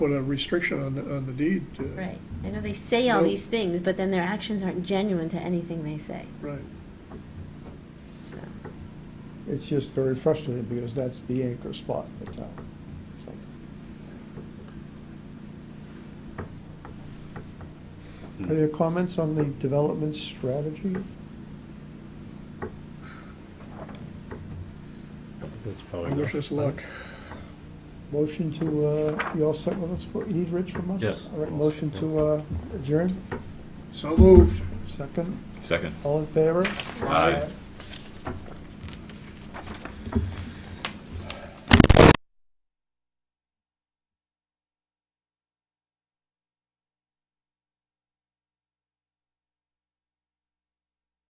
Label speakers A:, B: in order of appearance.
A: put a restriction on the, on the deed. uh,
B: Right. I know they say all
A: Nope.
B: these things, but then their actions aren't genuine to anything they say,
A: Right.
B: so.
C: It's just very frustrating because that's the anchor spot in the town. So, Are there comments on the development strategy?
D: That's
A: I
D: probably
A: wish
D: enough.
A: us luck.
C: Motion to, uh, you all set with us? What You need Rich from us?
D: Yes.
C: All right, motion to uh, adjourn,
A: So moved.
C: second,
E: Second.
C: all in favor?
E: Aye.